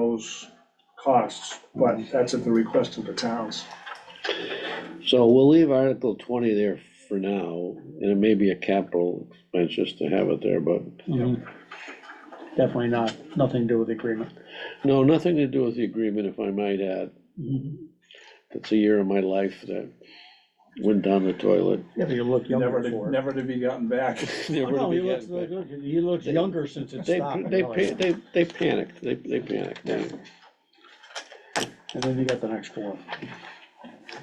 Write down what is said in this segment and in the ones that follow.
those costs, but that's at the request of the towns. So we'll leave Article twenty there for now, and it may be a capital expense just to have it there, but, Definitely not, nothing to do with the agreement. no, nothing to do with the agreement, if I might add. That's a year of my life that went down the toilet. Yeah, but you look Never younger to, for it. never to be gotten back. Never to Oh, No, he be looks, had back. look- he looks younger since it They, stopped. they, really. pa- they, they panicked, they, they panicked, They're And then you got the next one.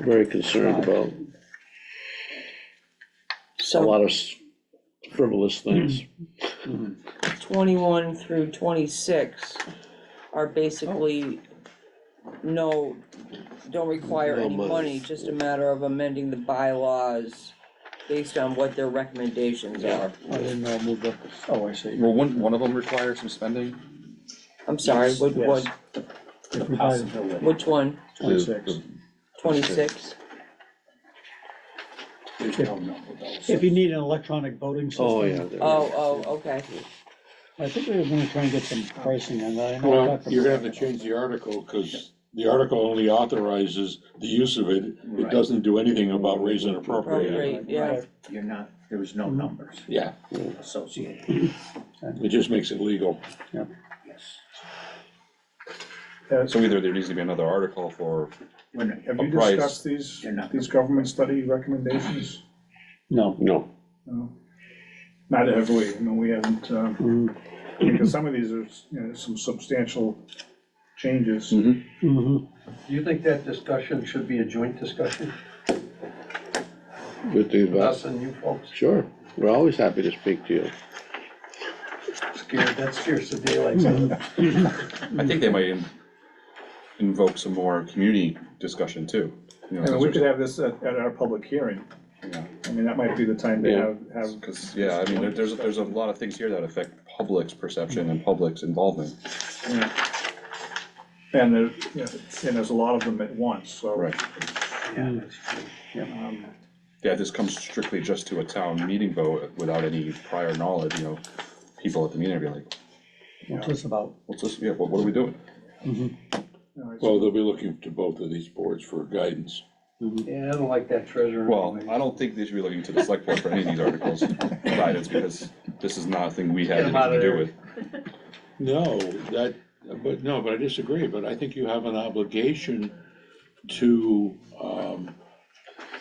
very concerned about a So lot of s- frivolous things. twenty-one through twenty-six are basically no, don't require No any money. money, just a matter of amending the bylaws based on what their recommendations are. I didn't know, it moved up, oh, I see. Well, wouldn't one of them require some spending? I'm sorry, what, what, Yes. If we buy it, which one? Twenty-six. Twenty-six? If you need an electronic voting system. Oh, yeah. there Oh, is. oh, okay. I think we were gonna try and get some pricing on that. I know I Well, talked to you're gonna Brian have to change the article, because the article only authorizes the use of it. It doesn't do anything about raise and appropriate. Appropriate, yeah. You're not, there was no numbers Yeah, associated, it just makes it legal. yes. Has- So either there needs to be another article for, We're not- Have you A price. discussed these, They're not- these government study recommendations? No. No, No. Not heavily, no, we haven't, um, Mm, because some of these are, you know, some substantial changes. mhm. Do you think that discussion should be a joint discussion, with the advice, us and you folks? sure, we're always happy to speak to you. Scared, that scares the daylights out of me. I think they might in- invoke some more community discussion too. You I mean, know, we since could there's- have this at, at our public hearing. Yeah. I mean, that might be the time to Yeah. have, have, Cause, yeah, I mean, there- there's, there's a lot of things here that affect public's perception and public's involvement. and there, you know, and there's a lot of them at once, so. Right. Yeah, that's true. um, Yeah, this comes strictly just to a town meeting vote without any prior knowledge, you know, people at the meeting are gonna be like, What's this about? what's this, yeah, what what are we doing? all right, so- Well, they'll be looking to both of these boards for guidance. Yeah, I don't like that treasurer. Well, anyway. I don't think they should be looking to the select board for any of these articles, guidance, because this is not a thing we Get have 'em anything to outta do there. with. No, that, but, no, but I disagree, but I think you have an obligation to, um,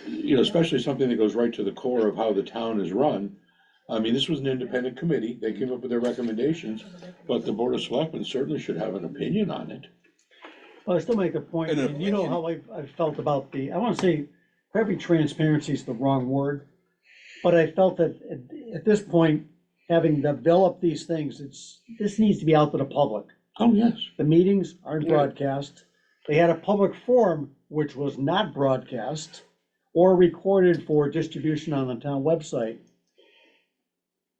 you know, especially something that goes right to the core of how the town is run. I mean, this was an independent committee, they came up with their recommendations, but the Board of Selectmen certainly should have an opinion on it. Well, I still make a point, And, uh, and you know how I, I felt about the, I wanna say, probably transparency is the wrong word, but I felt that at, at this point, having developed these things, it's, this needs to be out to the public. Oh, yes. The meetings aren't broadcast. They had a public forum which was not broadcast or recorded for distribution on the town website.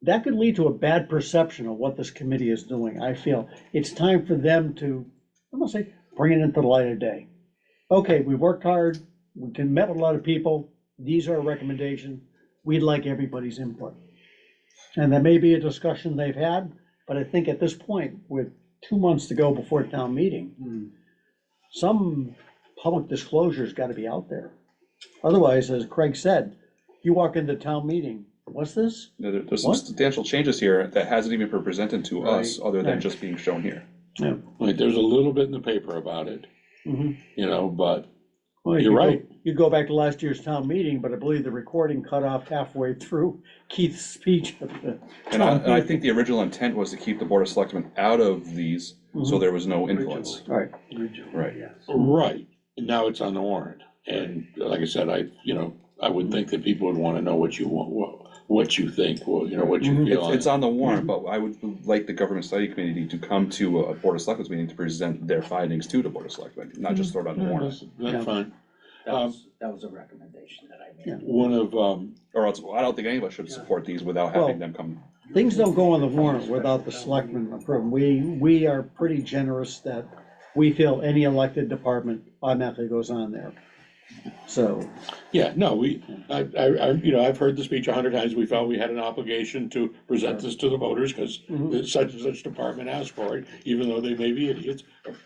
That could lead to a bad perception of what this committee is doing, I feel. It's time for them to, I'm gonna say, bring it into the light of day. Okay, we worked hard, we can met with a lot of people, these are our recommendations, we'd like everybody's input. And there may be a discussion they've had, but I think at this point, with two months to go before town meeting, some public disclosure's gotta be out there. Otherwise, as Craig said, you walk into town meeting, what's this? You know, there- There's some What? substantial changes here that hasn't even been presented to us, other than right. just being shown here. Yeah. Like, there's a little bit in the paper about it, you know, but You're right. You go back to last year's town meeting, but I believe the recording cut off halfway through Keith's speech. And I, and I think the original intent was to keep the board of selectmen out of these, Mm-hmm. so there was no influence. Alright, Original, Right. yes. Right, now it's on the warrant, and like I said, I, you know, I would think that people would wanna know what you want, what, what you think, well, you know, what you feel It's, on it's it. on the warrant, Mm-hmm. but I would like the government study committee to come to a board of selectmen's meeting to present their findings to the board of selectmen, not Mm-hmm. just throw it on the Yeah, warrant. That's Yeah. that's fine, That was, that was a recommendation that I Yeah. made. one of, um, Or else, I don't think any of us should support these without having Well- them come. things don't go on the warrant without the selectmen approving. We, we are pretty generous that we feel any elected department automatically goes on there. So, yeah, no, we, I, I, I- you know, I've heard the speech a hundred times, we felt we had an obligation to present this to the voters, cause Mhm. such and such department asked for it, even though they may be idiots,